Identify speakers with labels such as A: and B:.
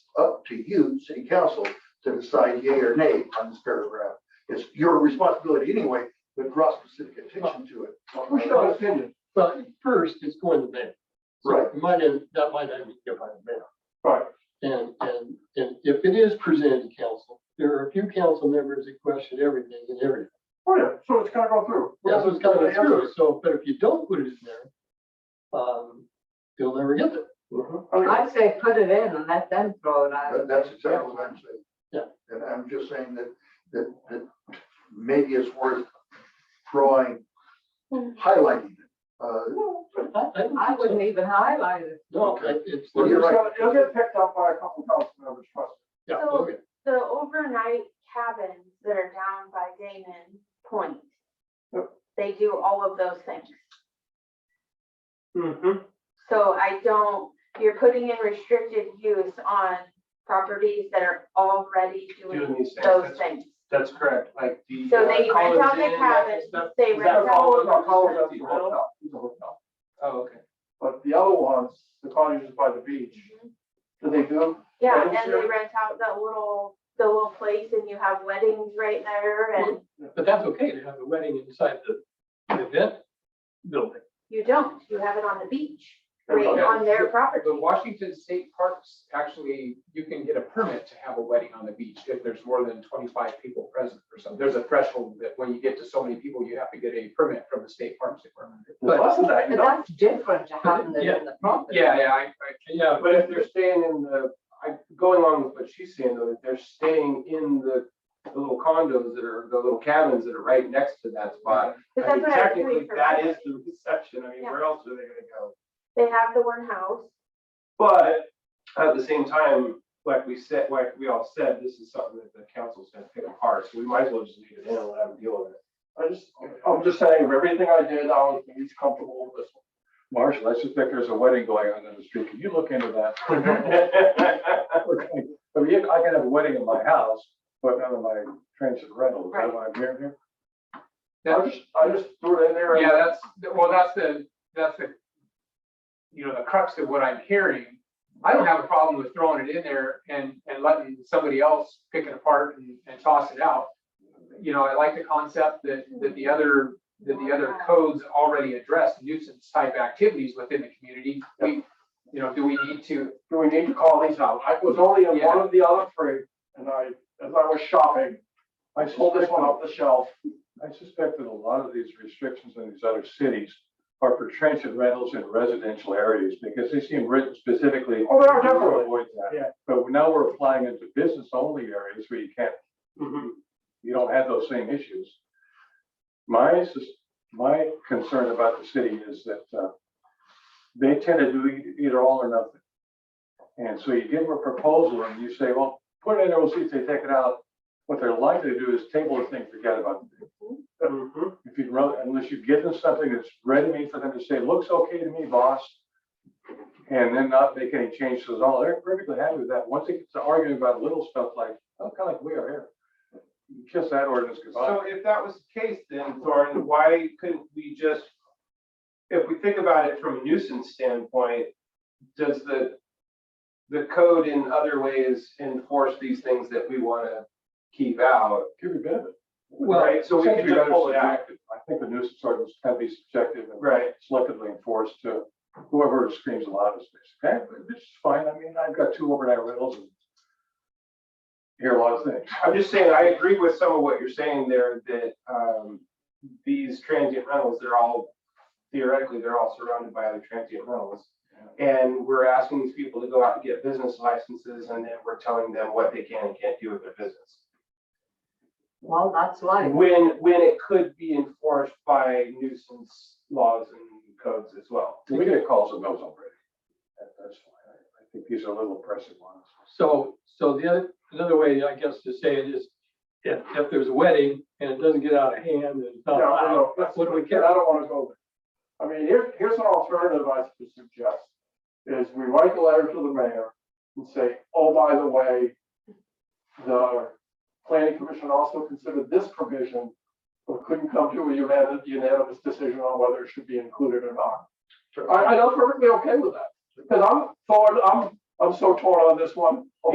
A: to you, city council, to decide yea or nay on this paragraph. It's your responsibility anyway, but draw specific attention to it.
B: We should have an opinion, but first it's going to mayor. So
A: Right.
B: it Might, end- that might not be given by the mayor.
A: Right.
B: And, and, and if it is presented to council, there are a few council members that question everything and everything.
A: Oh, yeah, so it's kind of go through.
B: That's what's coming through. So, but if you don't put it in there, um, you'll never get there.
A: Uh-huh. Okay.
C: I say put it in and let them throw it
A: That-
C: out.
A: That's exactly what I'm saying.
B: Yeah.
A: And I'm just saying that, that, that maybe it's worth drawing, highlighting it. Uh,
B: I- don't
C: I
B: think so.
C: wouldn't even highlight it.
B: No, I- it's.
A: Well, you're right.
D: It'll get picked up by a couple council members, trust me.
B: Yeah,
E: So-
B: okay.
E: the overnight cabins that are down by Damon Point.
D: Yep.
E: They do all of those things. So I don't, you're putting in restricted use on properties that are already
F: Doing
E: doing
F: these things.
E: those
F: That's-
E: things.
F: That's correct, like the.
E: So
F: uh,
E: they rent
F: Collins
E: out the
F: Inn, that
E: cabins,
F: stuff.
E: they
F: Is
E: rent
F: that
E: out
F: all of
D: College,
F: them?
D: no, college, that's a
F: Empty, right?
D: hotel, it's a hotel.
F: Oh, okay.
D: But the other ones, the cottages by the beach, do they do?
E: Mm-hmm. Yeah,
D: Wedding
E: and they
D: share?
E: rent out that little, the little place and you have weddings right there and
B: But that's okay to have a wedding inside the the event building.
E: you don't, you have it on the beach, right
D: Okay.
E: on their property.
F: The Washington State Parks, actually, you can get a permit to have a wedding on the beach if there's more than twenty-five people present or something. There's a threshold that when you get to so many people, you have to get a permit from the state parks department.
D: Well,
B: But-
D: Less than that, you
C: But
D: know.
C: that's different to having it in the property.
F: Yeah, yeah, I, I
B: Yeah,
D: But if they're staying in the, I, going along with what she's saying though, if they're staying in the, the little condos that are, the little cabins that are right next to that spot.
E: But
D: I
E: that's
D: mean,
E: what I was doing
D: technically,
E: for.
D: that is
E: weddings.
D: the reception. I mean,
E: Yeah.
D: where else are they gonna go?
E: They have the one house.
D: But at the same time, like we said, like we all said, this is something that the council's gonna pick apart, so we might as well just leave it in and let them deal with it. I just, I'm just saying, of everything I did, I was the least comfortable with this
G: Marshall, I suspect there's a wedding going on in the street. Can you look into that?
D: one.
G: Okay. I mean, I can have a wedding in my house, but none of my transit rentals. Am I hearing you?
D: I just, I just threw it in there. and-
F: Yeah, that's, well, that's the, that's the, you know, the crux of what I'm hearing. I don't have a problem with throwing it in there and, and letting somebody else pick it apart and, and toss it out. You know, I like the concept that, that the other, that the other codes already address nuisance type activities within the community. We, you know, do we need to,
D: Do we need to call these out? I was only in one of the other three, and I, as I was shopping,
G: I
D: I pulled this
G: suspect,
D: one off the shelf.
G: I suspect that a lot of these restrictions in these other cities are for transit rentals in residential areas because they seem written specifically.
D: Oh, they are
G: to
D: definitely.
G: Avoid that.
D: Yeah.
G: But now we're applying it to business only areas where you can't,
D: Mm-hmm.
G: you don't have those same issues. My, sus- my concern about the city is that, uh, they tend to do e- either all or nothing. And so you give them a proposal and you say, well, put it in there, we'll see if they take it out. What they're likely to do is table the thing, forget about it.
F: Mm-hmm.
D: Mhm.
G: If you run, unless you give them something that's ready made for them to say, looks okay to me, boss. And then not make any changes at all. They're perfectly happy with that. Once it gets to arguing about little stuff like, oh, kind of like we are here. Kiss that ordinance goodbye.
D: So if that was the case, then Thorne, why couldn't we just, if we think about it from a nuisance standpoint, does the, the code in other ways enforce these things that we want to keep out?
G: Give your benefit.
B: Well,
D: Right, so we can
G: Something
D: just
G: better
D: pull it out.
G: subjective. I think the nuisance ordinance can be subjective and
D: Right.
G: selectively enforced to whoever screams the loudest, basically. Okay, This is fine. I mean, I've got two overnight rentals and hear a lot of things.
D: I'm just saying, I agree with some of what you're saying there, that, um, these transient rentals, they're all, theoretically, they're all surrounded by other transient rentals. And we're asking these people to go out and get business licenses, and then we're telling them what they can and can't do with their business.
C: Well, that's life.
D: When, when it could be enforced by nuisance laws and codes as well.
G: We get calls on those already. That- That's fine. I I think these are a little oppressive ones.
B: So, so the other, another way, I guess, to say it is, if, if there's a wedding and it doesn't get out of hand and. it's not-
D: No, I don't- that's-
B: What do we
D: And
B: care?
D: I don't wanna go there. I mean, here, here's an alternative I would suggest, is we write a letter to the mayor and say, oh, by the way, the planning commission also considered this provision, but couldn't come to a unanimous, unanimous decision on whether it should be included or not. I, I'm perfectly okay with that, because I'm, Thorne, I'm, I'm so torn on this one.